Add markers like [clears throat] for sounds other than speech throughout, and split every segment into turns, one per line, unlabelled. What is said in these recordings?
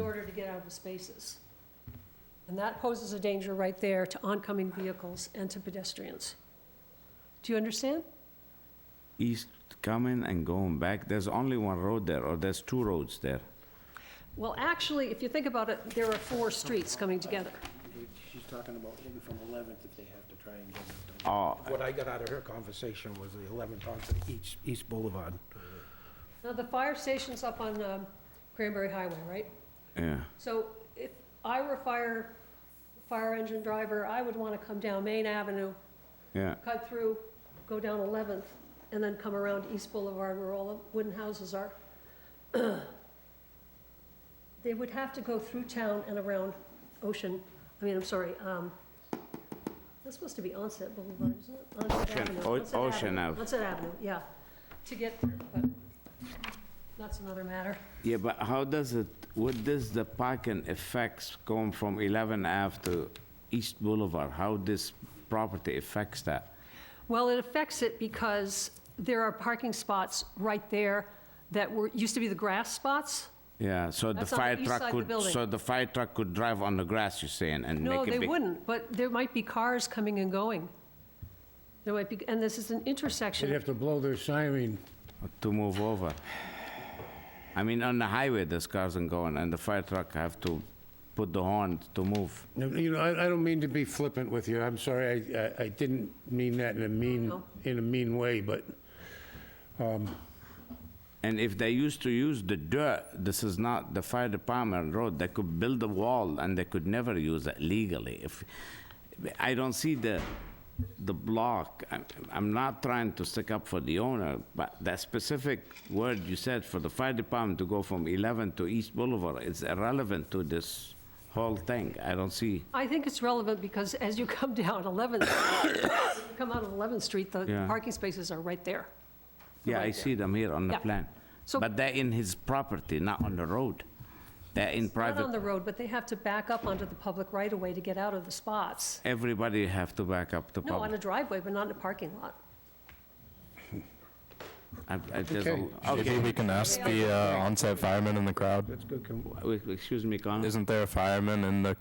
order to get out of the spaces. And that poses a danger right there to oncoming vehicles and to pedestrians. Do you understand?
East coming and going back, there's only one road there, or there's two roads there.
Well, actually, if you think about it, there are four streets coming together.
She's talking about maybe from 11th if they have to try and get it done.
Oh,
What I got out of her conversation was the 11th onto East, East Boulevard.
Now, the fire station's up on um, Cranberry Highway, right?
yeah,
So if I were a fire, fire engine driver, I would want to come down Main Avenue,
yeah,
cut through, go down 11th, and then come around East Boulevard where all the wooden houses are. [clears throat] They would have to go through town and around Ocean, I mean, I'm sorry, um, that's supposed to be Onset Boulevard, isn't it? Onset
Ocean-
Avenue,
O-
Onset
Ocean Ave.
Onset Avenue, yeah, to get there, but that's another matter.
yeah, but how does it, what does the parking effects going from 11 Ave to East Boulevard? How this property affects that?
Well, it affects it because there are parking spots right there that were, used to be the grass spots.
Yeah, so the
That's on the
fire
east side
truck
of the
could,
building.
so the fire truck could drive on the grass, you're saying, and make a
No,
big...
they wouldn't, but there might be cars coming and going. There might be, and this is an
They'd
intersection.
have to blow their siren.
to move over. I mean, on the highway, there's cars and going, and the fire truck have to put the horn to move.
No, You know, I, I don't mean to be flippant with you. I'm sorry. I- I, I didn't mean that in a mean,
No.
in a mean way, but
And if they used to use the dirt, this is not the fire department road, they could build a wall and they could never use it legally. If, I don't see the, the block, I'm, I'm not trying to stick up for the owner, but that specific word you said for the fire department to go from 11 to East Boulevard is irrelevant to this whole thing. I don't see.
I think it's relevant because as you come down 11th, you come out of 11th Street, the
Yeah.
parking spaces are right there.
Yeah, I
right
see them here on the
Yeah.
plan.
So-
But they're in his property, not on the road. They're in
Not on the
private,
road, but they have to back up onto the public right-of-way to get out of the spots.
everybody have to back up the
No, on a
public.
driveway, but not in a parking lot.
I- I- there's a-
Okay.
Okay,
Maybe we can ask the uh, onset fireman in the crowd.
That's good. Can-
w- excuse me, Connor,
Isn't there a fireman in the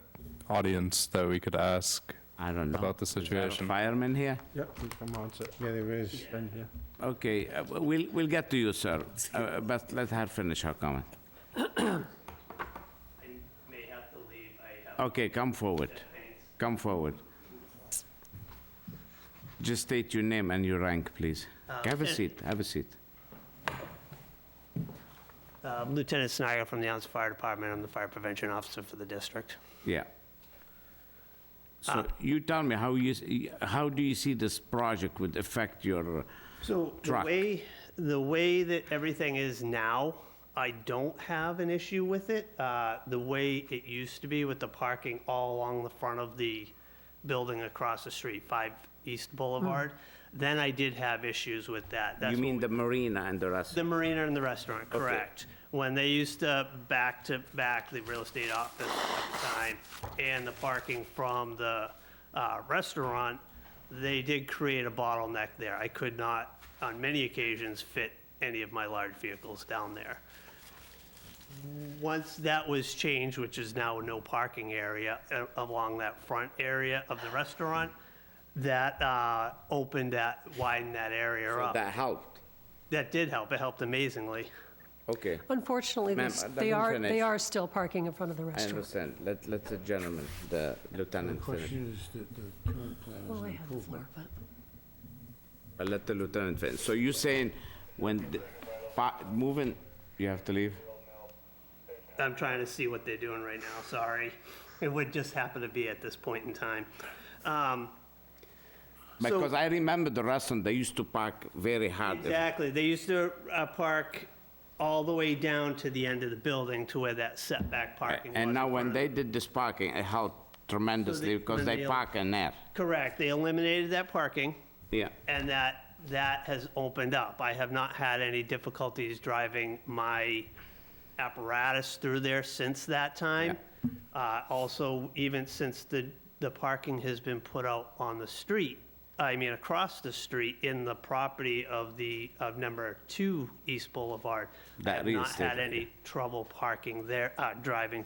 audience that we could ask?
I don't know.
about the
Is there a
situation.
Fireman here?
Yeah, we come on, so,
yeah, there is.
been here.
Okay, uh, w- we'll, we'll get to you, sir, Uh, but let her finish her comment.
I may have to leave. I have
Okay, come forward,
things.
come forward. Just state your name and your rank, please. Have a seat, have a seat.
Uh, Lieutenant Snyder from the Onset Fire Department. I'm the fire prevention officer for the district.
Yeah.
Uh.
So you tell me how you, s- how do you see this project would affect your,
So the
Truck.
way, the way that everything is now, I don't have an issue with it. Uh, The way it used to be with the parking all along the front of the building across the street, 5 East Boulevard, then I did have issues with that. That's
you
what
mean the marina and the rest?
The marina and the restaurant, correct. When they used to back to back the real estate office at the time and the parking from the uh, restaurant, they did create a bottleneck there. I could not, on many occasions, fit any of my large vehicles down there. Once that was changed, which is now no parking area uh, along that front area of the restaurant, that uh, opened that, widened that area up.
That helped,
That did help. It helped amazingly.
okay,
Unfortunately,
Ma'am,
this-
let
they
him
are, they
finish.
are still parking in front of the
I
restaurant.
understand, let, let the gentleman, the
The
lieutenant finish.
question is that the current plan is
Well,
an
I have the
improvement.
floor, but.
Uh, Let the lieutenant finish, so you're saying when, the pa- moving, you have to leave?
I'm trying to see what they're doing right now, sorry. It would just happen to be at this point in time. Um, So-
Because I remember the restaurant, they used to park very hard. if-
Exactly. They used to uh, park all the way down to the end of the building to where that setback parking was.
And
in
now
front
when
of
they
them.
did this parking, it helped tremendously because
when
they
they-
park in there,
Correct. They eliminated that parking,
yeah.
and that, that has opened up. I have not had any difficulties driving my apparatus through there since that time. Uh, Also, even since the, the parking has been put out on the street, I mean, across the street in the property of the, of number two East Boulevard. I
That
have
is
not had
different.
any trouble parking there, uh, driving